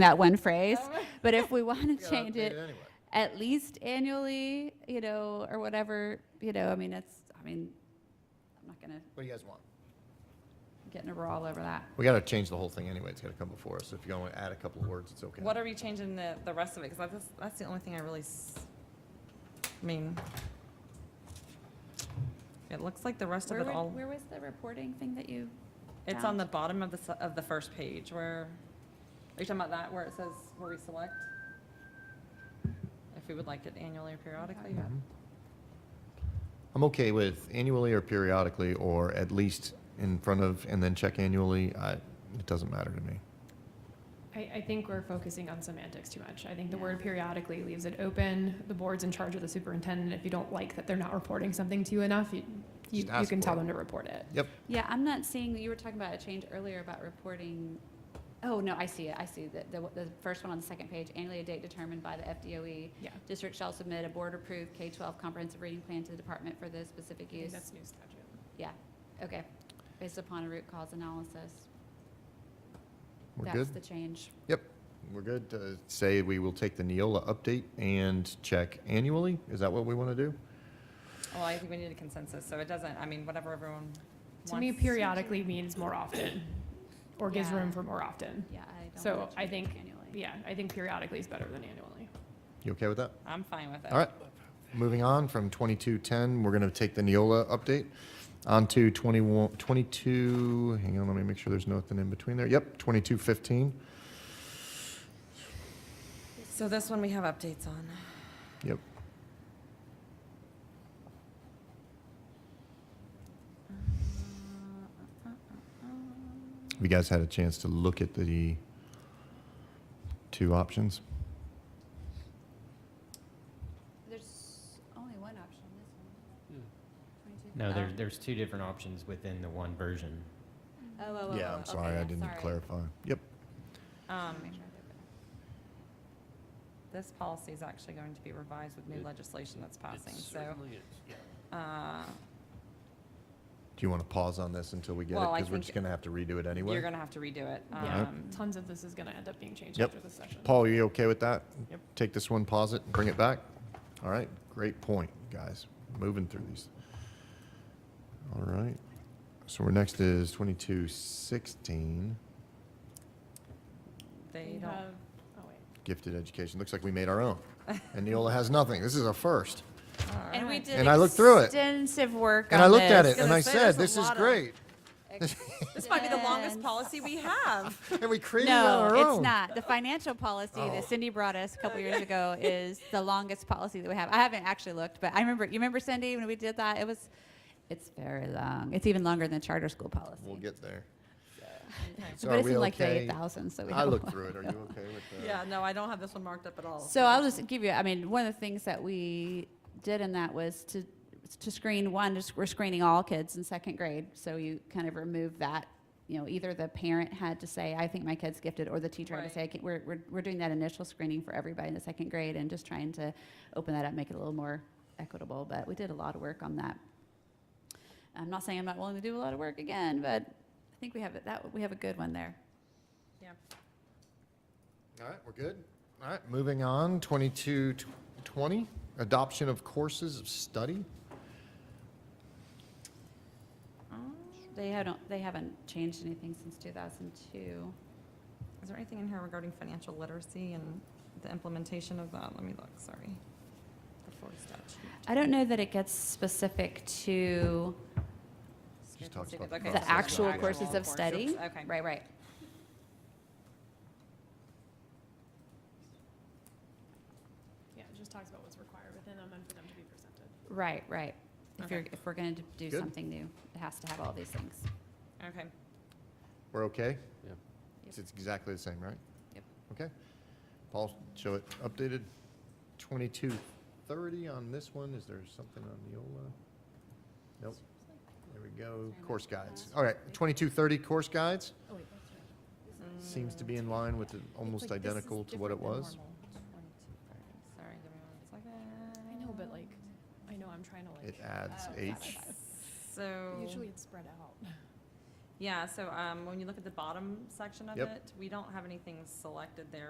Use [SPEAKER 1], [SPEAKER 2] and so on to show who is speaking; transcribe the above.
[SPEAKER 1] that one phrase.
[SPEAKER 2] Um,
[SPEAKER 1] But if we want to
[SPEAKER 3] gotta
[SPEAKER 1] change
[SPEAKER 3] update
[SPEAKER 1] it,
[SPEAKER 3] it anyway.
[SPEAKER 1] at least annually, you know, or whatever, you know, I mean, it's, I mean, I'm not gonna
[SPEAKER 3] What do you guys want?
[SPEAKER 1] get in a brawl over that.
[SPEAKER 3] We got to change the whole thing anyway. It's got to come before us. If you want to add a couple of words, it's okay.
[SPEAKER 2] What are we changing the, the rest of it? Because that's, that's the only thing I really, s- I mean, it looks like the rest of
[SPEAKER 1] Where,
[SPEAKER 2] it
[SPEAKER 1] would-
[SPEAKER 2] all,
[SPEAKER 1] where was the reporting thing that you?
[SPEAKER 2] it's on
[SPEAKER 1] found?
[SPEAKER 2] the bottom of the, s- of the first page where, are you talking about that, where it says, where we select? If we would like it annually or periodically?
[SPEAKER 3] Mm-hmm. I'm okay with annually or periodically, or at least in front of, and then check annually. I, it doesn't matter to me.
[SPEAKER 4] I, I think we're focusing on semantics too much. I think the
[SPEAKER 1] Yeah.
[SPEAKER 4] word periodically leaves it open. The board's in charge of the superintendent. If you don't like that they're not reporting something to you enough, you, you,
[SPEAKER 3] Just
[SPEAKER 4] you
[SPEAKER 3] ask
[SPEAKER 4] can tell
[SPEAKER 3] for it.
[SPEAKER 4] them to report it.
[SPEAKER 3] Yep.
[SPEAKER 1] Yeah, I'm not seeing, you were talking about a change earlier about reporting. Oh, no, I see it. I see the, the, the first one on the second page, annually a date determined by the FDOE.
[SPEAKER 4] Yeah.
[SPEAKER 1] E. District shall submit a board-approved K-12 comprehensive reading plan to the department for the specific
[SPEAKER 4] I think
[SPEAKER 1] use.
[SPEAKER 4] That's new statute.
[SPEAKER 1] Yeah, okay. Based upon a root cause analysis.
[SPEAKER 3] We're good.
[SPEAKER 1] That's the change.
[SPEAKER 3] Yep. We're good to say we will take the Neola update and check annually. Is that what we want to do?
[SPEAKER 2] Well, I think we need a consensus, so it doesn't, I mean, whatever everyone
[SPEAKER 4] To me,
[SPEAKER 2] wants.
[SPEAKER 4] periodically means more often, or gives
[SPEAKER 1] Yeah.
[SPEAKER 4] room for more often.
[SPEAKER 1] Yeah, I don't.
[SPEAKER 4] So
[SPEAKER 1] wanna
[SPEAKER 4] I
[SPEAKER 1] change
[SPEAKER 4] think-
[SPEAKER 1] annually.
[SPEAKER 4] Yeah, I think periodically is better than annually.
[SPEAKER 3] You okay with that?
[SPEAKER 2] I'm fine with it.
[SPEAKER 3] All right. Moving on from 2210, we're going to take the Neola update on to 21, 22, hang on, let me make sure there's nothing in between there. Yep, 2215.
[SPEAKER 2] So this one we have updates on.
[SPEAKER 3] Yep. Have you guys had a chance to look at the two options?
[SPEAKER 1] There's only one option, this one. 22.
[SPEAKER 5] No, there's,
[SPEAKER 1] Oh.
[SPEAKER 5] there's two different options within the one version.
[SPEAKER 1] Oh, oh, oh,
[SPEAKER 3] Yeah,
[SPEAKER 1] oh,
[SPEAKER 3] I'm
[SPEAKER 1] okay,
[SPEAKER 3] sorry, I
[SPEAKER 1] yeah,
[SPEAKER 3] didn't
[SPEAKER 1] sorry.
[SPEAKER 3] clarify. Yep.
[SPEAKER 2] Um,
[SPEAKER 1] Make sure I did that.
[SPEAKER 2] This policy is actually going to be revised with new legislation that's passing, so. uh,
[SPEAKER 3] Do you want to pause on this until we get it?
[SPEAKER 2] Well, I
[SPEAKER 3] Because we're
[SPEAKER 2] think
[SPEAKER 3] just going to have to redo it
[SPEAKER 2] You're
[SPEAKER 3] anyway.
[SPEAKER 2] gonna have to redo it.
[SPEAKER 4] Yeah,
[SPEAKER 2] Um,
[SPEAKER 4] tons of this is gonna end up being changed
[SPEAKER 3] Yep.
[SPEAKER 4] after this session.
[SPEAKER 3] Paul, are you okay with that?
[SPEAKER 5] Yep.
[SPEAKER 3] Take this one, pause it, and bring it back? All right, great point, guys. Moving through these. All right. So we're next is 2216,
[SPEAKER 2] They
[SPEAKER 4] We
[SPEAKER 2] don't,
[SPEAKER 4] have- Oh, wait.
[SPEAKER 3] gifted education. Looks like we made our own. And Neola has nothing. This is a first.
[SPEAKER 6] And we did
[SPEAKER 3] And I looked through it.
[SPEAKER 6] extensive work
[SPEAKER 3] And I
[SPEAKER 6] on
[SPEAKER 3] looked at
[SPEAKER 6] this.
[SPEAKER 3] it and
[SPEAKER 2] gonna
[SPEAKER 3] I
[SPEAKER 2] say,
[SPEAKER 3] said,
[SPEAKER 2] there's
[SPEAKER 3] this
[SPEAKER 2] a
[SPEAKER 3] is
[SPEAKER 2] lot of-
[SPEAKER 3] great.
[SPEAKER 2] this might be the longest
[SPEAKER 1] Extends.
[SPEAKER 2] policy we have.
[SPEAKER 3] And we created it on
[SPEAKER 1] No,
[SPEAKER 3] our own. Oh.
[SPEAKER 1] it's not. The financial policy that Cindy brought us a couple years ago is the longest policy that we have. I haven't actually looked, but I remember, you remember Cindy when we did that? It was, it's very long. It's even longer than the charter school policy.
[SPEAKER 3] We'll get there. So
[SPEAKER 1] But
[SPEAKER 3] are
[SPEAKER 1] it's
[SPEAKER 3] we
[SPEAKER 1] in like the
[SPEAKER 3] okay?
[SPEAKER 1] 8,000, so we
[SPEAKER 3] I
[SPEAKER 1] don't
[SPEAKER 3] looked
[SPEAKER 1] wanna
[SPEAKER 3] through it. Are you okay with that?
[SPEAKER 2] Yeah, no, I don't have this one marked up at all.
[SPEAKER 1] So I'll just give you, I mean, one of the things that we did in that was to, to screen, one, just we're screening all kids in second grade. So you kind of remove that, you know, either the parent had to say, I think my kid's gifted, or the teacher had to say, I can't, we're, we're, we're doing that initial screening for everybody in the second grade and just trying to open that up, make it a little more equitable. But we did a lot of work on that. I'm not saying I'm not willing to do a lot of work again, but I think we have, it- that, we have a good one there.
[SPEAKER 2] Yeah.
[SPEAKER 3] All right, we're good. All right, moving on, 2220, adoption of courses of study.
[SPEAKER 2] Uh,
[SPEAKER 1] They haven't, they haven't changed anything since 2002.
[SPEAKER 2] Is there anything in here regarding financial literacy and the implementation of that? Let me look, sorry. The fourth statute.
[SPEAKER 1] I don't know that it gets specific to
[SPEAKER 3] She talks about
[SPEAKER 2] Okay,
[SPEAKER 3] the
[SPEAKER 2] so
[SPEAKER 1] the actual
[SPEAKER 3] actual
[SPEAKER 1] courses of
[SPEAKER 2] courses.
[SPEAKER 1] study.
[SPEAKER 2] Okay.
[SPEAKER 1] Right, right.
[SPEAKER 4] Yeah, it just talks about what's required within them and for them to be presented.
[SPEAKER 1] Right, right. If
[SPEAKER 2] Okay.
[SPEAKER 1] you're, if we're going to do
[SPEAKER 3] Good.
[SPEAKER 1] something new, it has to have all these things.
[SPEAKER 2] Okay.
[SPEAKER 3] We're okay?
[SPEAKER 5] Yeah.
[SPEAKER 3] It's it's exactly the same, right?
[SPEAKER 1] Yep.
[SPEAKER 3] Okay. Paul, show it updated. 2230 on this one, is there something on Neola? Nope. There we go, course guides. All right, 2230 course guides
[SPEAKER 4] Oh, wait, that's right.
[SPEAKER 1] Mm.
[SPEAKER 3] seems to be in line with, the- almost identical to what it was.
[SPEAKER 2] Mm, Sorry, give me one second.
[SPEAKER 4] I know, but like, I know I'm trying to
[SPEAKER 3] It
[SPEAKER 4] like,
[SPEAKER 3] adds
[SPEAKER 1] Oh,
[SPEAKER 3] H.
[SPEAKER 1] got it.
[SPEAKER 2] So.
[SPEAKER 4] usually it's spread out.
[SPEAKER 2] Yeah, so um, when you look at the bottom section of
[SPEAKER 3] Yep.
[SPEAKER 2] it, we don't have anything selected there